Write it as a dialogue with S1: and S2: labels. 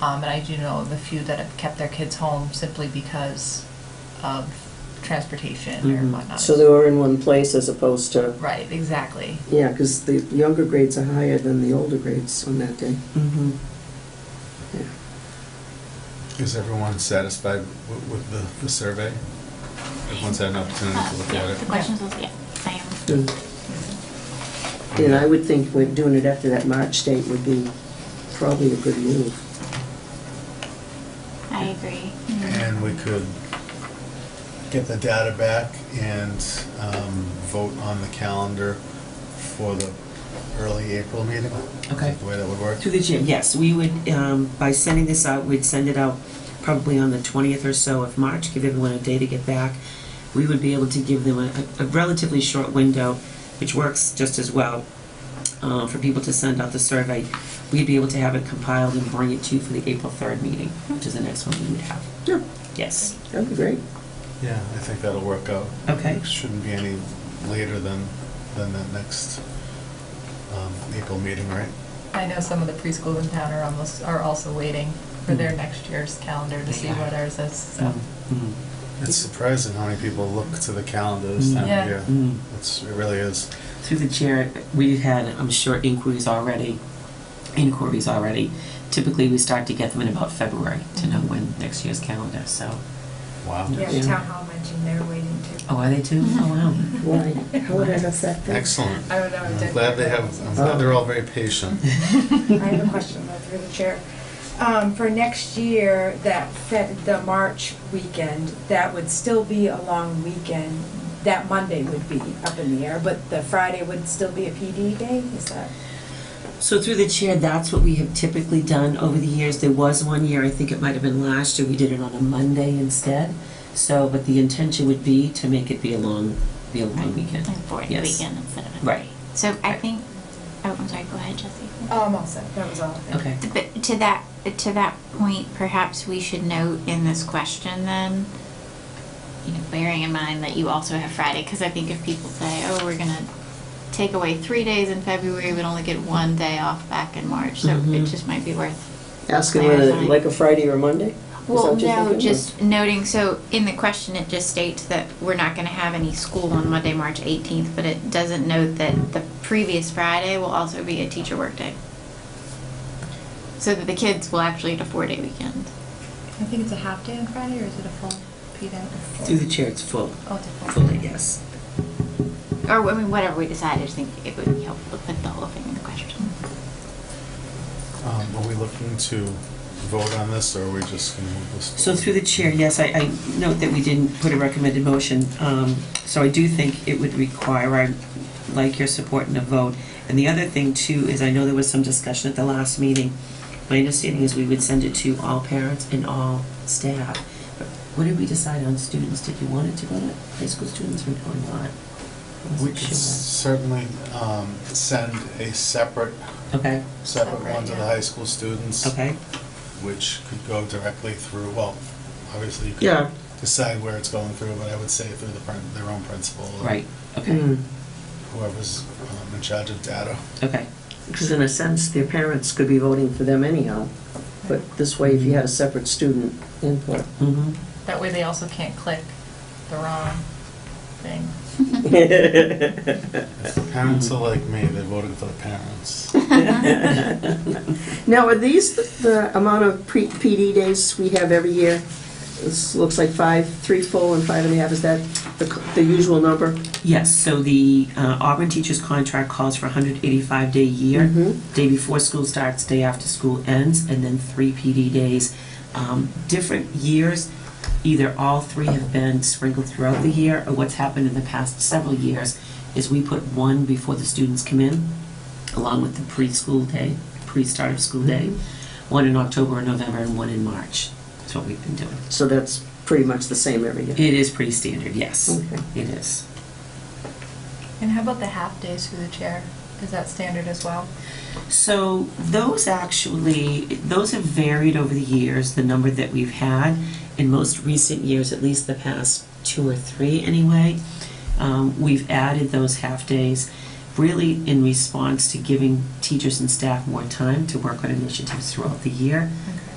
S1: Um, and I do know the few that have kept their kids home simply because of transportation or
S2: Mm-hmm.
S3: Mhm.
S1: whatnot.
S2: So they were in one place as opposed to,
S1: Right, exactly.
S3: Yeah, because the younger grades are higher than the older grades on that day.
S2: Mhm.
S4: Is everyone satisfied wi- with the, the survey? Everyone's had an opportunity to look
S5: Yeah,
S4: at
S5: The
S4: it?
S5: questions was, yeah, I am.
S3: And I would think we're doing it after that March date would be probably a good move.
S5: I agree.
S4: And we could get the data back and um, vote on the calendar for the early April meeting? Is that
S2: Okay.
S4: The way that would work?
S2: Through the chair, yes, we would, um, by sending this out, we'd send it out probably on the 20th or so of March, give everyone a day to get back. We would be able to give them a a relatively short window, which works just as well, uh, for people to send out the survey. We'd be able to have it compiled and bring it to you for the April 3rd meeting, which is the next one we would have.
S3: Sure.
S2: Yes.
S3: That'd be great.
S4: Yeah, I think that'll work out.
S2: Okay.
S4: It Shouldn't be any later than, than that next um, April meeting, right?
S1: I know some of the preschools in town are almost, are also waiting for their next year's calendar to see what ours is, so.
S2: Mm-hmm.
S4: It's surprising how many people look to the calendar this time
S1: Yeah.
S4: of year.
S2: Mm.
S4: It's, it really is.
S2: Through the chair, we've had, I'm sure, inquiries already, inquiries already. Typically, we start to get them in about February to know when next year's calendar, so.
S4: Wow.
S6: Yeah, the town hall mentioned they're waiting to.
S2: Oh, are they too?
S6: Mm-hmm.
S2: Oh, wow.
S3: Why? How would I affect that?
S4: Excellent.
S6: I don't know, it
S4: I'm
S6: did-
S4: glad they have, I'm glad they're all very patient.
S6: I have a question though, through the chair. Um, for next year, that Fed, the March weekend, that would still be a long weekend. That Monday would be up in the air, but the Friday would still be a PD day, is that?
S2: So through the chair, that's what we have typically done over the years. There was one year, I think it might have been last year, we did it on a Monday instead. So, but the intention would be to make it be a long, be a long weekend.
S5: Mm-hmm. Like fourth
S2: Yes.
S5: weekend instead of a
S2: Right.
S5: three. So I think, oh, I'm sorry, go ahead, Jesse.
S6: Um, also, that was all.
S2: Okay.
S5: But to that, to that point, perhaps we should note in this question then, you know, bearing in mind that you also have Friday, because I think if people say, oh, we're gonna take away three days in February, we'd only get one day off back in March, so it
S2: Mhm.
S5: just might be worth.
S3: Asking whether,
S5: clarifying.
S3: like a Friday or Monday?
S5: Well,
S3: what you're
S5: no,
S3: thinking, or-
S5: just noting, so in the question, it just states that we're not gonna have any school on Monday, March eighteenth, but it doesn't note that the previous Friday will also be a teacher workday. So that the kids will actually get a four-day weekend.
S1: I think it's a half day on Friday, or is it a full P day?
S2: Through the chair, it's full,
S1: Oh, it's a full.
S2: fully, yes.
S5: Or, I mean, whatever we decide, I just think it would be helpful to put the whole thing in the question.
S4: Um, Are we looking to vote on this, or are we just going to move this?
S2: So through the chair, yes, I, I note that we didn't put a recommended motion, um, so I do think it would require, I'd like your support in a vote. And the other thing too is I know there was some discussion at the last meeting. My understanding is we would send it to all parents and all staff. But What did we decide on students? Did you want it to go to high school students or or not? I
S4: We
S2: wasn't
S4: could
S2: sure.
S4: certainly um, send a separate,
S2: Okay,
S4: separate one to the
S6: Separate, yeah.
S4: high school students,
S2: okay.
S4: which could go directly through, well, obviously you
S2: Yeah.
S4: could decide where it's going through, but I would say through the, prin- their own principal. or
S2: Right, okay,
S3: Mm.
S4: Whoever's um, in charge of data.
S2: okay.
S3: Because in a sense, their parents could be voting for them anyhow. But this way, if you had a separate student input.
S2: Mm-hmm.
S1: That way they also can't click the wrong thing.
S2: Mm-hmm. Uh,
S4: If the parents are like me, they voted for the parents.
S3: Now, are these the- the amount of pre- PD days we have every year? This looks like five, three full and five and a half, is that the c- the usual number?
S2: Yes, so the uh, Auburn teacher's contract calls for 185 day a year,
S3: Mhm.
S2: day before school starts, day after school ends, and then three PD days. Um, Different years, either all three have been sprinkled throughout the year, or what's happened in the past several years is we put one before the students come in, along with the preschool day, pre-start of school day, one in October and November, and one in March. That's what we've been doing.
S3: So that's pretty much the same every year.
S2: It is pretty standard, yes,
S3: Okay.
S2: it is.
S1: And how about the half days through the chair? Is that standard as well?
S2: So those actually, those have varied over the years, the number that we've had. In most recent years, at least the past two or three anyway, um, we've added those half-days really in response to giving teachers and staff more time to work on initiatives throughout the year.
S1: Okay.